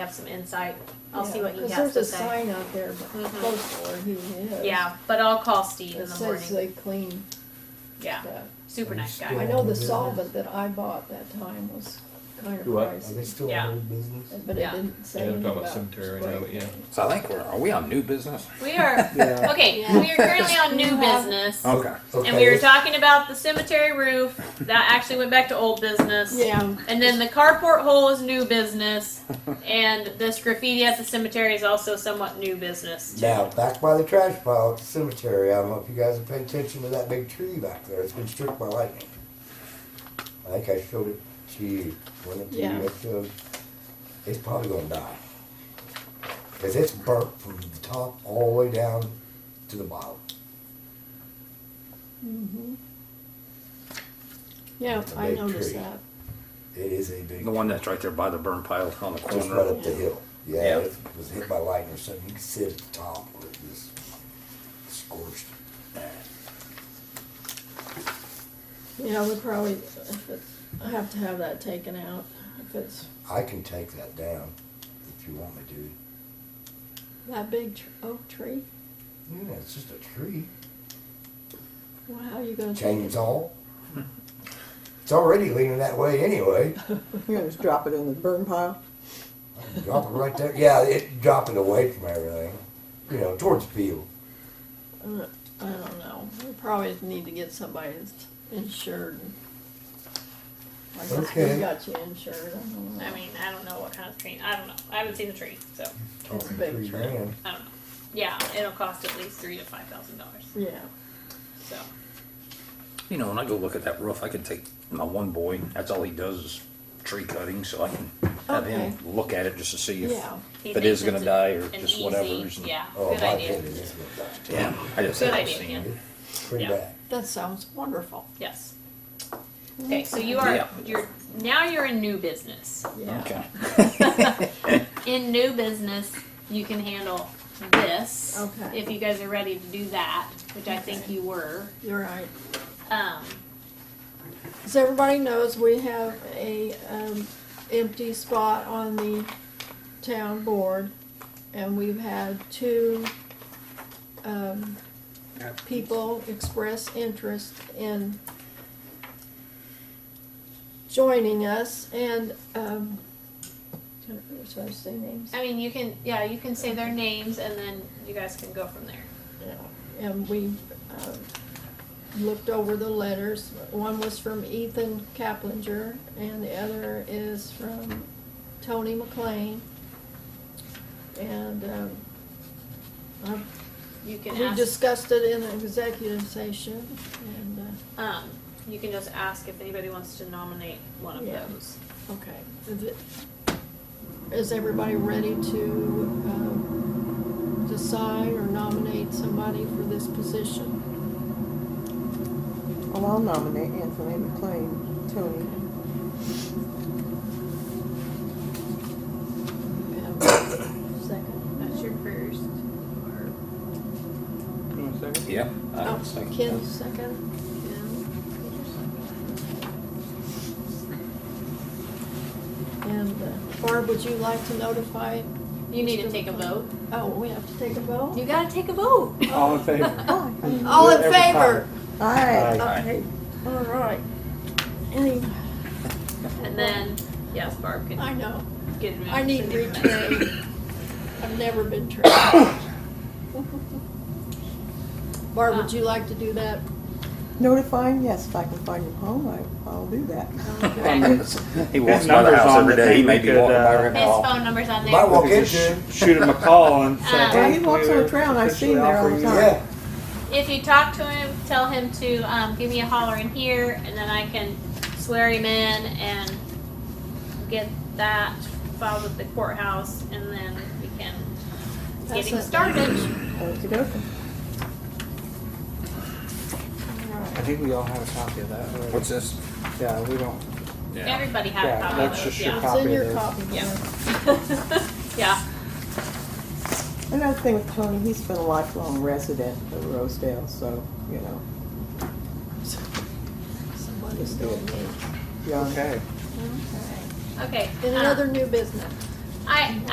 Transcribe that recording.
have some insight. I'll see Yeah, what he 'cause has to There's a say. sign out there Mhm. close to where he lives. Yeah, but I'll call Steve in It the says morning. they clean Yeah, stuff. super Are you nice I guy. still- know the Yeah. solvent that I bought that time was kind of Do what? pricey. Are they still Yeah. in old business? But it Yeah. didn't say Yeah, they're anything talking about. about cemetery right now, spray. yeah. So I think we're, are we on new business? We are Yeah. okay. Yeah. We are currently on new Yeah. business, Okay. and we were let's- talking about the cemetery roof that actually went back to old business. Yeah, And then the carport hole is new business, and this graffiti at the cemetery is also somewhat new business. Too. Now, back by the trash pile at the cemetery, I don't know if you guys have paid attention to that big tree back there. It's been struck by lightning. I think I showed it to you. When it to Yeah. you, I showed- it's probably going to die. Because it's burnt from the top all the way down to the bottom. yeah, It's a I big noticed tree. that. It is a big The one that's right there by the burn pile on the Just right corner. up the hill. Yeah, Yeah. it was hit by lightning or something. You could sit at the top where it was scorched. Yeah, we probably, if it- I have to have that taken out if it's I can take that down if you want me to. that big tr- oak tree. Yeah, it's just a tree. Well, how are you gonna take it? Chainsaw. It's already leaning that way anyway. You're gonna just drop it in the burn pile? Drop it right there. Yeah, it drop it away from everything. You know, towards the field. Uh, I don't know. We probably need to get somebody that's insured. Like, Okay. we got you insured, I don't know. I mean, I don't know what kind of tree. I don't know. I haven't seen the tree, so It's a Talking big three tree. grand. I don't know. Yeah, it'll cost at least three to five thousand dollars. Yeah, So You know, when I go look at that roof, I can take my one boy. That's all he does is tree cutting, so I can have him look at it just to see if yeah. he If it thinks is gonna it's a- die or an just easy- whatever's- Yeah, Oh, good my idea. goodness. it's gonna die. Yeah, I just Good haven't idea, seen it. Pretty Yeah. bad. That sounds wonderful. Yes. Okay, so you are Yeah. you're now you're in new business. Yeah. Okay. In new business, you can handle this. Okay. If you guys are ready to do that, which I think Okay. you were. You're right. Um, As everybody knows, we have a, um, empty spot on the town board, and we've had two, um, people express interest in joining us, and, um, should I say names? I mean, you can yeah, you can say their names and then you guys can go from there. And we uh, looked over the letters. One was from Ethan Kaplinger, and the other is from Tony McLean. And um, I- You can we ask. discussed it in executive session, and, uh, um, you can just ask if anybody wants to nominate one of Yeah. those. okay. Is it- Is everybody ready to um, decide or nominate somebody for this position? Well, I'll nominate Anthony McLean, Tony. We have a Second. That's your first. Or Yeah. I Oh, don't think- Ken, second. And uh, Barb, would you like to notify? You need to take a vote. Oh, we have to take a vote? You gotta take a vote. All in favor? All it in every favor? Aye. Aye. Okay, all right. Any, And then, yes, Barb can I know, get it. I need retraining. I've never been trained. Barb, would you like to do that? Notifying, yes, if I can find him home, I, I'll do that. Okay. He walks His by the number's house on every the day. He thing, may we be could, walking by uh, right His now. phone number's on Might there. walk We could into just sh- Shoot him a call and say, Uh, Yeah, he hey. walks on we're the trail, and I've officially seen there all the offering you- time. Yeah. If you talk to him, tell him to um, give me a holler in here, and then I can swear him in and get that filed with the courthouse, and then we can get him That's it. started. Okey-dokey. I think we all have a copy of that. right? What's this? Yeah, we don't, Yeah. Everybody had a yeah, copy of that's those, just your yeah. It's in copy of your this. copy. Yeah. yeah. Another thing with Tony, he's been a lifelong resident of Rosedale, so, you know, Somebody's doing me. Yeah, okay. Okay. Okay. In uh, another new business. I